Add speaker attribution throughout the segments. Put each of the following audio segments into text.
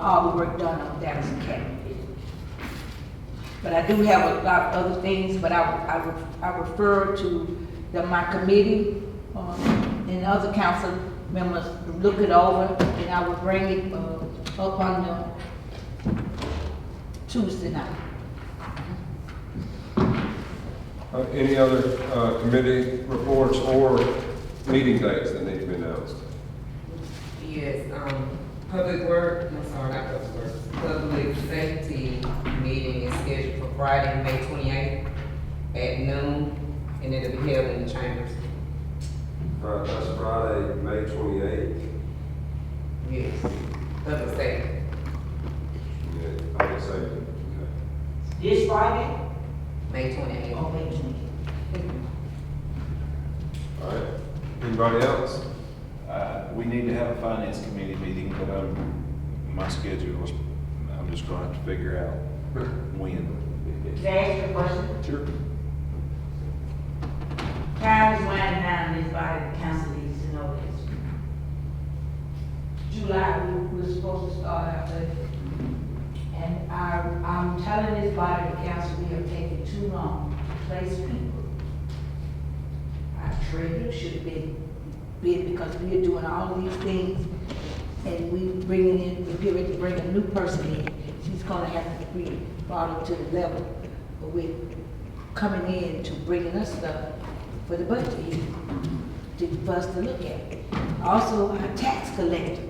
Speaker 1: all the work done on Dallas Academy. But I do have a lot of other things, but I, I, re- I refer to the, my committee, um, and other council members, to look it over, and I will bring it, uh, up on the Tuesday night.
Speaker 2: Uh, Any other uh, committee reports or meeting dates that need to be announced?
Speaker 3: Yes, um, Public Work, I'm sorry, not Public Work, Public Safety meeting is scheduled for Friday, May twenty-eighth at noon, and it'll be held in the chambers.
Speaker 2: All right, Uh, that's Friday, May twenty-eighth.
Speaker 3: Yes, Public Safety.
Speaker 2: Yeah, public safety. Okay.
Speaker 4: This Friday?
Speaker 3: May twenty-eighth.
Speaker 4: Oh, wait,
Speaker 2: All right. Anybody else?
Speaker 5: Uh, We need to have a finance committee meeting, but um, my schedule is, I'm just gonna have to figure out when.
Speaker 4: can I ask you a question?
Speaker 5: Sure.
Speaker 4: Time is winding down, this body, the council needs to know this.
Speaker 1: July, we we're supposed to start our budget. And I, I'm telling this body, the council, we have taken too long to place people. Our treasurer uh, should have been, been, because we are doing all these things, and we bringing in, we're getting ready to bring a new person in. She's gonna have to be brought up to the level, but we're coming in to bringing us stuff for the budget year to, for us to look at. Also, our tax collector.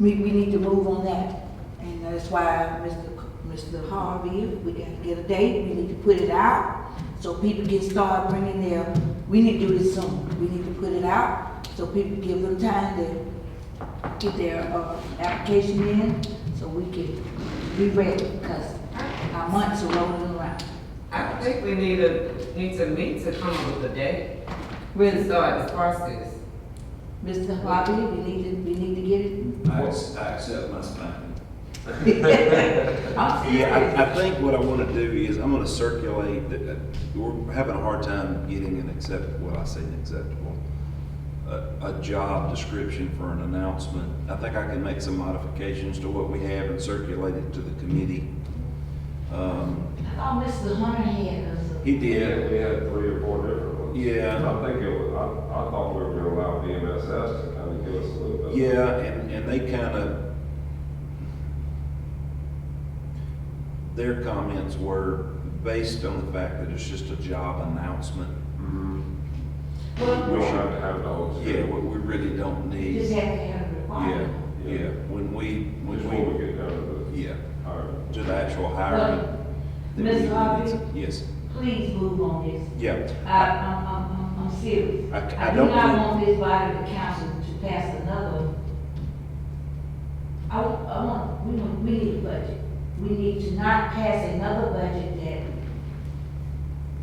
Speaker 1: We, we need to move on that, and that's why Mr. C- Mr. Harvey, if we gotta get a date, we need to put it out, so people can start bringing their, we need to do this soon, we need to put it out, so people give them time to get their, uh, application in, so we can be ready, because our months are rolling around.
Speaker 3: I think we need a, need to meet to come up with a date.
Speaker 1: Really,
Speaker 3: to start this process.
Speaker 1: Mr. Harvey, we need to, we need to get it.
Speaker 5: I accept my spine.
Speaker 1: I'm
Speaker 5: Yeah, I,
Speaker 1: serious.
Speaker 5: I think what I wanna do is, I'm gonna circulate, the- uh, we're having a hard time getting an acceptable, well, I say an acceptable, a, a job description for an announcement. I think I can make some modifications to what we have and circulate it to the committee. Um,
Speaker 1: I thought Mr. Hunter had us. a-
Speaker 5: He did,
Speaker 2: We had three or four different ones.
Speaker 5: yeah.
Speaker 2: I think it was, I, I thought we were gonna allow BMSS to kind of give us a little bit.
Speaker 5: Yeah, and, and they kind of, their comments were based on the fact that it's just a job announcement.
Speaker 2: Mhm.
Speaker 4: Well,
Speaker 2: We don't have to have the whole.
Speaker 5: Yeah, what we really don't
Speaker 4: you just
Speaker 5: need.
Speaker 4: have to have a
Speaker 5: Yeah,
Speaker 4: requirement.
Speaker 5: yeah, when we,
Speaker 2: Just before
Speaker 5: when
Speaker 2: we get down to
Speaker 5: we, yeah,
Speaker 2: the, all right.
Speaker 5: to the actual hiring. that
Speaker 4: Ms.
Speaker 5: we-
Speaker 4: Harvey?
Speaker 5: Yes,
Speaker 4: Please move on this.
Speaker 5: yeah.
Speaker 4: I, I'm, I'm, I'm- I'm serious.
Speaker 5: I c-
Speaker 4: Uh,
Speaker 5: I
Speaker 4: I do
Speaker 5: don't
Speaker 4: not
Speaker 5: think-
Speaker 4: want this body, the council, to pass another. I, w- I want, we, want- we need a budget. We need to not pass another budget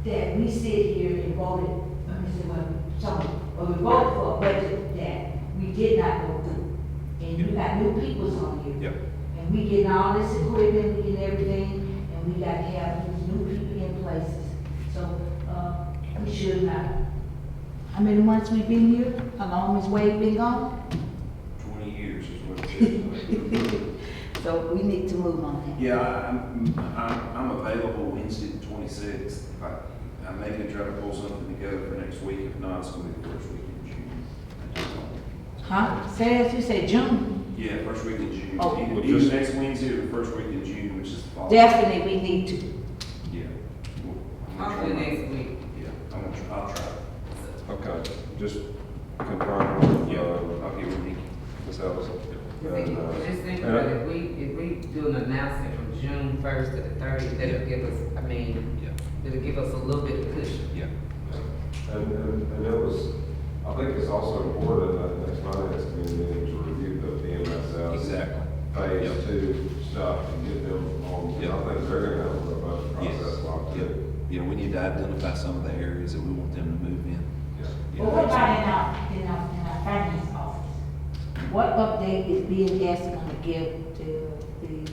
Speaker 4: that, that we sit here and voted, I mean, so what, so, or we voted for a budget that we did not go through. And you got new peoples on here.
Speaker 5: Yep.
Speaker 4: And we getting all this equipment, we getting everything, and we got to have these new people in places. So, uh, we should not.
Speaker 1: How many months we been here? How long has Wade been gone?
Speaker 5: Twenty years is what it is.
Speaker 1: So we need to move on
Speaker 5: Yeah, I- I'm, I'm, I'm available Wednesday the twenty-sixth. I, I may can try to pull something together for next week, if not, it's gonna be the first week in June. I just don't-
Speaker 1: that. Huh? Say, as you say, June.
Speaker 5: Yeah, first week in June,
Speaker 1: Oh.
Speaker 5: either, either next Wednesday or the first week in June, which is the fall.
Speaker 1: Definitely, we need to.
Speaker 5: Yeah. Well, I'm gonna try
Speaker 3: Hopefully
Speaker 5: my-
Speaker 3: next week.
Speaker 5: Yeah, I'm gonna, try- I'll try.
Speaker 2: Okay, just confirm,
Speaker 5: Yeah,
Speaker 2: uh,
Speaker 5: I'll get with Nikki.
Speaker 2: Ms. Ellison. And, uh,
Speaker 3: Just think
Speaker 2: and-
Speaker 3: about if we, if we do an announcement from June first to the thirtieth, that'll give us, I mean,
Speaker 5: Yeah,
Speaker 3: it'll give us a little bit of cushion.
Speaker 5: yeah.
Speaker 2: And, and, and it was, I think it's also important that next finance committee meeting to review the BMSS.
Speaker 5: Exactly.
Speaker 2: Phase
Speaker 5: Yep.
Speaker 2: two stuff and get them on,
Speaker 5: Yep.
Speaker 2: I think they're gonna have a robust
Speaker 5: Yes.
Speaker 2: process locked
Speaker 5: Yep.
Speaker 2: in.
Speaker 5: Yeah, we need to identify some of the areas that we want them to move in.
Speaker 2: Yeah.
Speaker 5: Yeah,
Speaker 4: But what
Speaker 5: that's-
Speaker 4: about in our, in our, in our finance office?
Speaker 1: What update is being asked to give to the,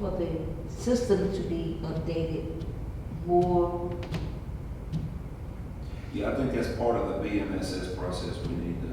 Speaker 1: uh, for the system to be updated more?
Speaker 5: Yeah, I think that's part of the BMSS process we need to Mm-hmm.